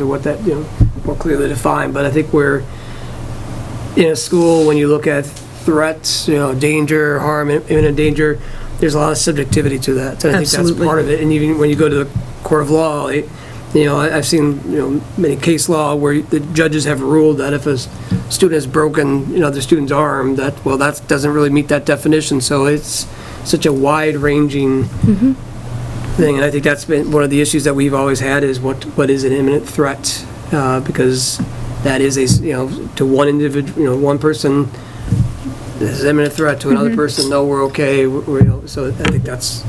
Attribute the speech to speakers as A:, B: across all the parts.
A: or what that, you know, more clearly defined, but I think we're, in a school, when you look at threats, you know, danger, harm, imminent danger, there's a lot of subjectivity to that. So I think that's
B: Absolutely.
A: part of it. And even when you go to the court of law, it- you know, I- I've seen, you know, many case law where the judges have ruled that if a s- student has broken, you know, the student's arm, that, well, that doesn't really meet that definition. So it's such a wide-ranging thing, and I think that's been one of the issues that we've always had is what, what is an imminent threat? Uh, Because that is a, s- you know, to one individual, you know, one person, this is imminent threat, to
C: Mm-hmm.
A: another person, no, we're okay, we're- we're, you know, so I think that's,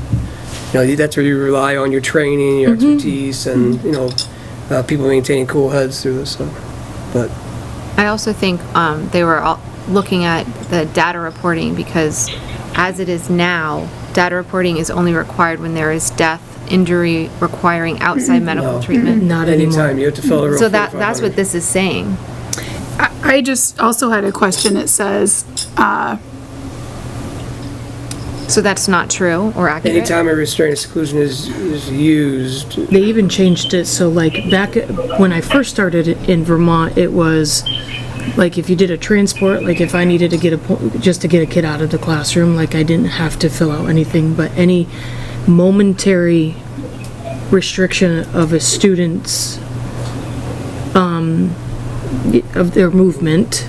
A: you know, that's where you rely on your training, your
C: Mm-hmm.
A: expertise, and, you know, uh, people maintaining cool heads through this, so, but,
C: I also think um, they were all looking at the data reporting because as it is now, data reporting is only required when there is death, injury requiring outside medical treatment.
B: Not anymore.
A: anytime you have to fill the room.
C: So that, that's what this is saying.
D: I just also had a question. It says,
C: So that's not true or accurate.
A: Anytime a restraint exclusion is, is used,
B: They even changed it, so like, back when I first started in Vermont, it was, like, if you did a transport, like, if I needed to get a, po- just to get a kid out of the classroom, like, I didn't have to fill out anything, but any momentary restriction of a student's, um, y- of their movement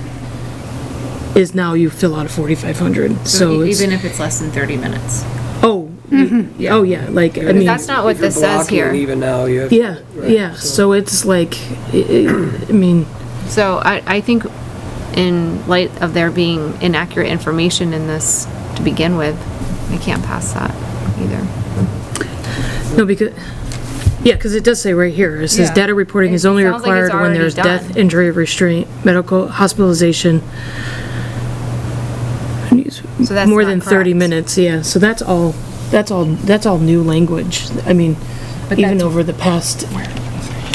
B: is now you fill out a 4,500, so it's,
C: e-, Even if it's less than 30 minutes.
B: oh, y- oh, yeah, like, I mean.
C: That's not
A: if
C: what
A: you're
C: this says
A: blocking
C: here.
A: even now, you have.
B: Yeah,
A: right,
B: yeah, so it's like, i- i I mean,
C: So I, I think in light of there being inaccurate information in this to begin with, I can't pass that either.
B: no, because, yeah, because it does say right here, it says
C: Yeah.
B: data reporting is
C: It
B: only
C: sounds like it's
B: required when
C: already
B: there's death,
C: done.
B: injury, restraint, medical, hospitalization. and use
C: So that's
B: More
C: not
B: than 30
C: correct.
B: minutes, yeah, so that's all, that's all, that's all new language, I mean, even
C: that's-
B: over the past,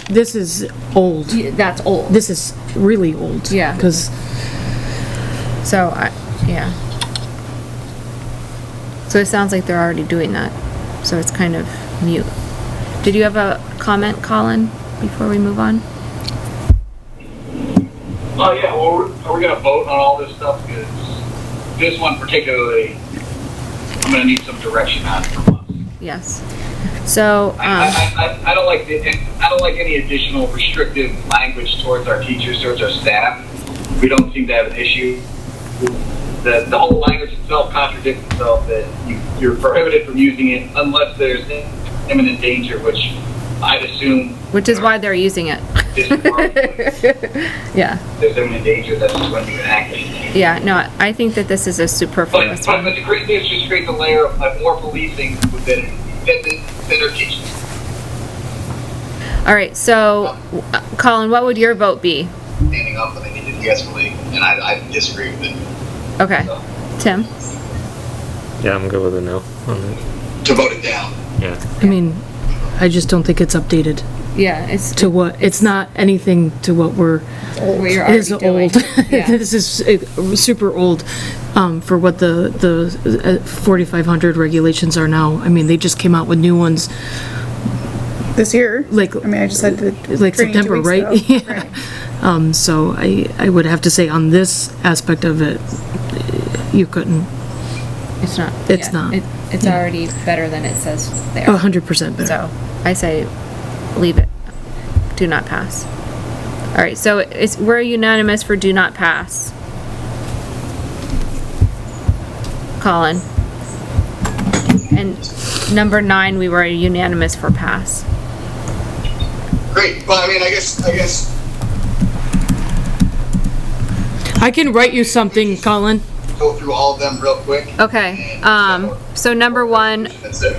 B: this is old,
C: That's old.
B: this is really old.
C: Yeah.
B: Because
C: So, I, yeah. So it sounds like they're already doing that, so it's kind of mute. Did you have a comment, Colin, before we move on?
E: Oh yeah, well, we're- are we gonna vote on all this stuff? Because this one particularly, I'm gonna need some direction on from us.
C: Yes. So, um,
E: I, I, I don't like the, I don't like any additional restrictive language towards our teachers, towards our staff. We don't seem to have an issue. The, the whole language itself contradicts itself that you, you're prohibited from using it unless there's imminent danger, which I'd assume.
C: which is why they're using it.
E: This department,
C: Yeah,
E: There's imminent danger, that's when you enact it.
C: yeah, no, I think that this is a
E: But,
C: superfluous
E: but but
C: one.
E: the great thing is just create the layer of like, more policing within, within, within our teaching.
C: All right, so, uh, Colin, what would your vote be?
E: Standing up, and they need to de-escalate, and I, I disagree with it.
C: Okay, Tim?
F: Yeah, I'm good with it now. on it.
E: To vote it down.
F: Yeah.
B: I mean, I just don't think it's updated
C: Yeah, it's
B: to what, it's not anything to what we're,
C: what you're
B: is old. This is uh, super old um, for what the, the uh, 4,500 regulations are now. I mean, they just came out with new ones,
D: this year,
B: like,
D: I mean, I just had the.
B: like
D: training two
B: September,
D: weeks
B: right?
D: ago.
B: Yeah. Um, So I, I would have to say on this aspect of it, you couldn't,
C: It's not.
B: It's
C: yeah,
B: not.
C: it- It's already better than it says there.
B: 100% better.
C: So I say, leave it. Do not pass. All right, so it's, we're unanimous for do not pass. Colin. And number nine, we were unanimous for pass.
G: Great. Well, I mean, I guess, I guess
B: I can write you something, Colin.
G: go through all of them real quick.
C: Okay, um, so number one,
G: That's it.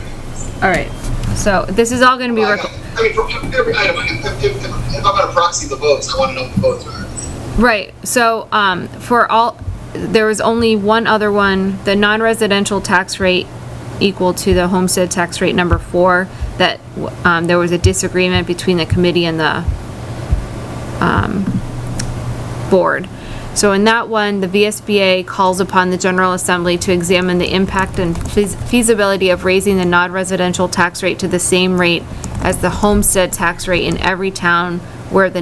C: all right, so this is all gonna be,
G: I
C: rec-
G: I mean, for every item, if, if, if, if I'm gonna proxy the votes, I want to know what the votes are.
C: Right, so, um, for all, there was only one other one, the non-residential tax rate equal to the homestead tax rate number four, that, um, there was a disagreement between the committee and the, um, board. So in that one, the VSBA calls upon the General Assembly to examine the impact and feas- feasibility of raising the non-residential tax rate to the same rate as the homestead tax rate in every town where the